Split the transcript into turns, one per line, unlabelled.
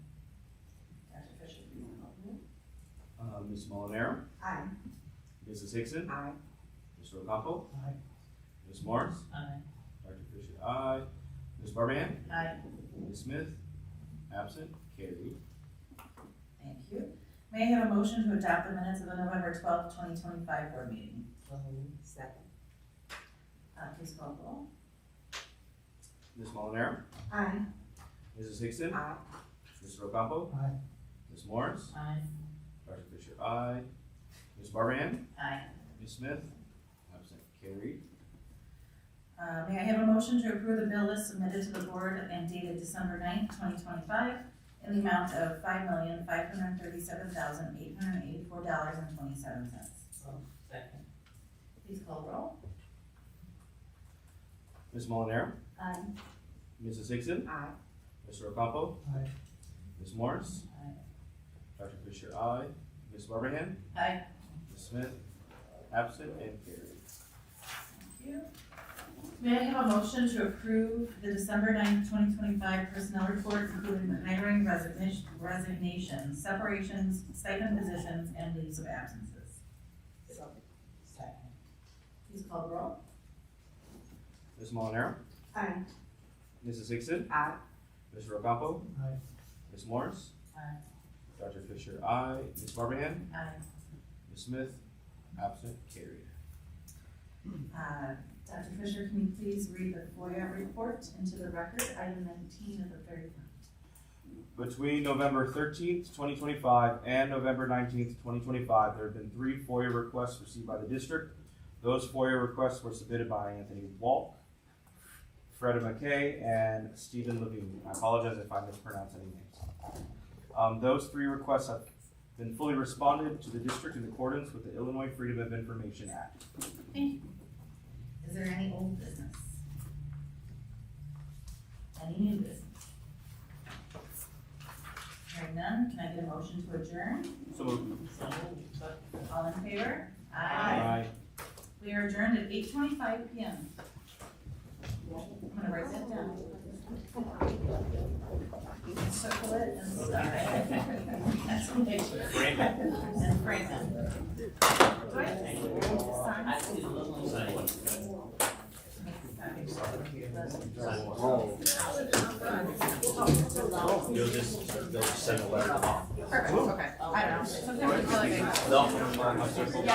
Ms. Uh, Molinaro,
Aye.
Mrs. Hickson,
Aye.
Mr. Ocampo,
Aye.
Ms. Morris,
Aye.
Dr. Fisher, aye. Ms. Barban,
Aye.
Ms. Smith, absent, carried.
Thank you. May I have a motion to adopt the minutes of the November twelfth, twenty twenty-five board meeting?
So Second.
Uh, please call the roll.
Ms. Molinaro,
Aye.
Mrs. Hickson,
Aye.
Mr. Ocampo,
Aye.
Ms. Morris,
Aye.
Dr. Fisher, aye. Ms. Barban,
Aye.
Ms. Smith, absent, carried.
Uh, may I have a motion to approve the bill list submitted to the board and dated December 9th, twenty twenty-five in the amount of five million, five hundred thirty-seven thousand, eight hundred eighty-four dollars and twenty-seven cents?
Second.
Please call the roll.
Ms. Molinaro,
Aye.
Mrs. Hickson,
Aye.
Mr. Ocampo,
Aye.
Ms. Morris,
Aye.
Dr. Fisher, aye. Ms. Barban,
Aye.
Ms. Smith, absent and carried.
Thank you. May I have a motion to approve the December 9th, twenty twenty-five personnel report, including the hiring resignation, resignations, separations, stipend positions, and leaves of absences?
So. Second.
Please call the roll.
Ms. Molinaro,
Aye.
Mrs. Hickson,
Aye.
Mr. Ocampo,
Aye.
Ms. Morris,
Aye.
Dr. Fisher, aye. Ms. Barbahan,
Aye.
Ms. Smith, absent, carried.
Uh, Dr. Fisher, can you please read the FOIA report into the record, item nineteen of the thirty-one?
Between November thirteenth, twenty twenty-five and November nineteenth, twenty twenty-five, there have been three FOIA requests received by the district. Those FOIA requests were submitted by Anthony Walk, Freda McKay, and Stephen Levine. I apologize if I mispronounce any names. Um, those three requests have been fully responded to the district in accordance with the Illinois Freedom of Information Act.
Is there any old business? Any new business? Hearing none, can I get a motion to adjourn?
So moved.
All in favor?
Aye.
We are adjourned at eight twenty-five PM. I'm gonna write that down. You can circle it and stuff. That's what they do. And frame them. Do I have to sign?
You'll just, they'll just send a letter.
Perfect, okay. I don't know. Sometimes I feel like I.
No.